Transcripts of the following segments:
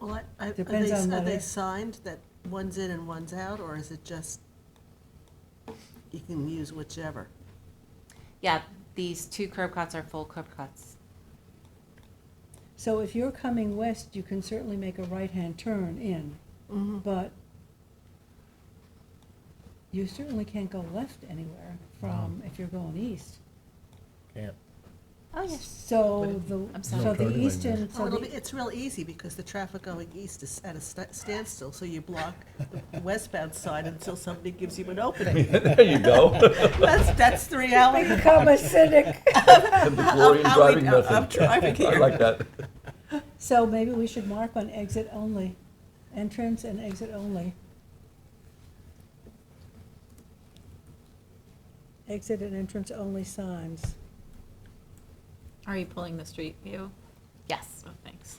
Are- are Depends they- on Are what they it- signed that one's in and one's out, or is it just, you can use whichever? Yeah, these two curb cuts are full curb cuts. So if you're coming west, you can certainly make a right-hand turn in, but you certainly can't go left anywhere from, if you're going east. Can't. Oh, So the, I'm sorry. so No turning the lane eastern, there. Oh, so it'll be, the, it's real easy, because the traffic going east is at a sta- standstill, so you block the westbound side until somebody gives you an opening. There you go. That's, that's the reality. of- become a cynic. And the of glory in how we- driving of- nothing. Of driving I here. like that. So maybe we should mark on exit only, entrance and exit only. Exit and entrance only signs. Are you pulling the street view? Yes. Oh, thanks.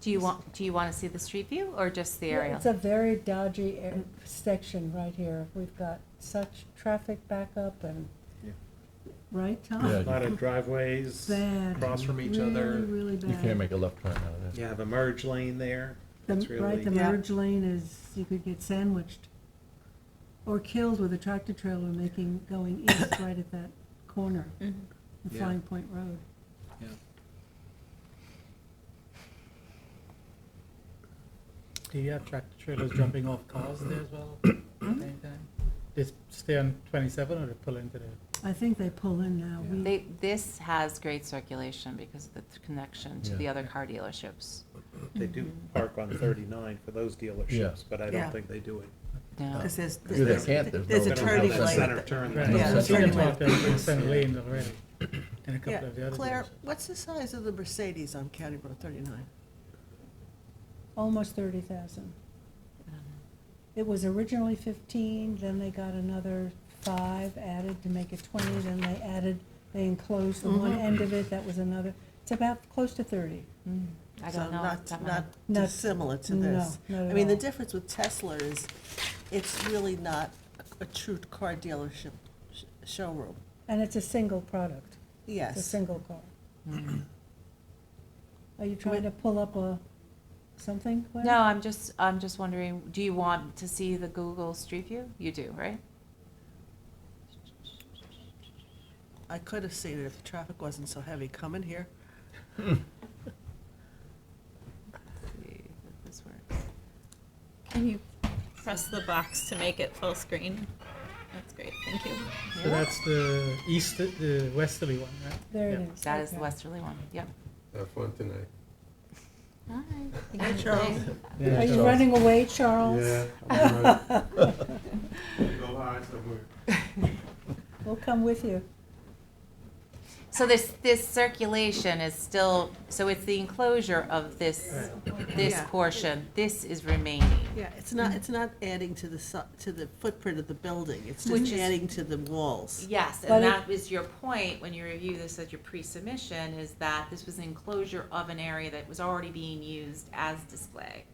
Do you want, do you want to see the street view or just the aerial? It's a very dodgy air- section right here. We've got such traffic backup and, Yeah. right, Yeah. Tom? A lot of driveways Bad. across from each Really, other. really bad. You can't make a left turn out of You that. have a merge lane there. The- It's Right, the really, Yeah. merge lane is, you could get sandwiched or killed with a tractor trailer making, going east right at that corner, the Mm-hmm. Yeah. Flying Point Road. yeah. Do you have tractor trailers jumping off cars there as well? Anytime? They s- stay on twenty-seven or they pull into the? I think they pull in now. Yeah. We, They, this has great circulation because of the th- connection to Yeah. the other car dealerships. They do park on thirty-nine for those Yeah. dealerships, but I Yeah. don't think they do it. No. Because there's, Yeah, they there's can't, there's there's no- a They don't have turning that Center lane. turn. Right. lane. Yeah, So that's you can right. talk to Wilson Lane already, and a couple Yeah, of the other. Claire, dealerships. what's the size of the Mercedes on County Road thirty-nine? almost thirty thousand. Uh-huh. It was originally fifteen, then they got another five added to make it twenty, then they added, they enclosed the one Mhm. end of it, that was another. It's about close to thirty. Mm, I So don't know. not- that one. Not Not- dissimilar to this. No, not at I mean, the all. difference with Tesla is, it's really not a true car dealership sh- showroom. And it's a single product, it's a Yes. Mm-hmm. single car. Are you trying to pull up a, something? Gwen? No, I'm just, I'm just wondering, do you want to see the Google Street View? You do, right? I could have seen it if the traffic wasn't so heavy coming here. Let's see if this works. Can you press the box to make it full screen? That's great, thank you. So that's the east, the westerly one, right? There it Yeah. is. That is the okay. westerly one, yep. Have fun tonight. Hi. Hi, Charles. Yeah, Are you so- running away, Charles? Go hide somewhere. We'll come with you. So this, this circulation is still, so it's the enclosure of this, this Yeah. portion, this is remaining. Yeah, it's not, it's not adding to the, su- to the footprint of the building, it's Which just is- adding to the walls. Yes, But and it- that was your point when you review this at your pre-submission, is that this was an enclosure of an area that was already being used as display.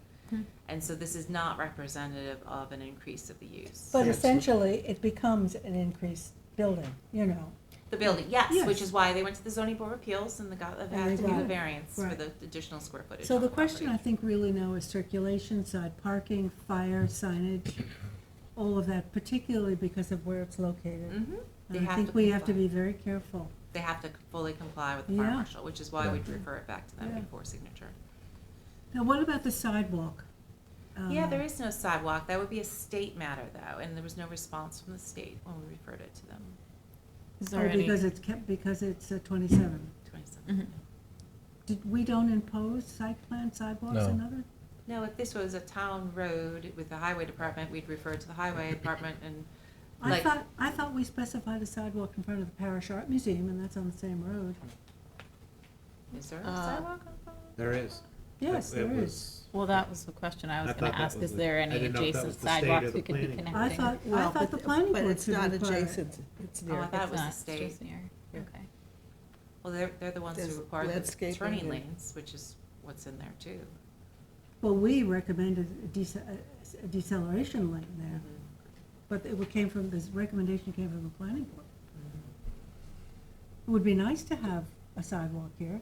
And so this is not representative of an increase of the use. But essentially, it becomes an increased building, you know. The building, yes, which Yes. is why they went to the zoning board of appeals and they got, And had they to do got the it. variance for Right. the additional square footage. So on the question I property. think really now is circulation, side parking, fire, signage, all of that, particularly because of where it's located. Mhm. They And I have think to we have to comply. be very careful. They have to fully comply with the fire Yeah. marshal, which is why Yeah. we'd refer it back to them Yeah. before signature. Now, what about the sidewalk? Yeah, Um, there is no sidewalk. That would be a state matter though, and there was no response from the state when we referred it to them. Is Oh, there any? because it's kept, because it's uh, twenty-seven. Twenty-seven. Did, we don't impose site plan sidewalks No. and other? No, if this was a town road with the highway department, we'd refer it to the highway department and I like, thought, I thought we specified a sidewalk in front of the Parish Art Museum, and that's on the same road. is there a Uh, sidewalk on Fallon? There is. Yes, It- it there is. was- Well, that was the question I was I gonna thought that ask, was is the- there I any didn't know if that was the adjacent state or sidewalks the we could be planning board. connecting? I thought, I Well, thought but- the planning But board it's should not require it. adjacent, it's Oh, I near. thought it was It's the not, it's state. just near. Yeah. Okay. Well, they're, they're the ones There's who require the landscaping turning and- lanes, which is what's in there too. Well, we recommended a dece- a- a deceleration lane there, Mm-hmm. but it wa- came from, this recommendation came from the planning board. It would be nice to have a sidewalk here.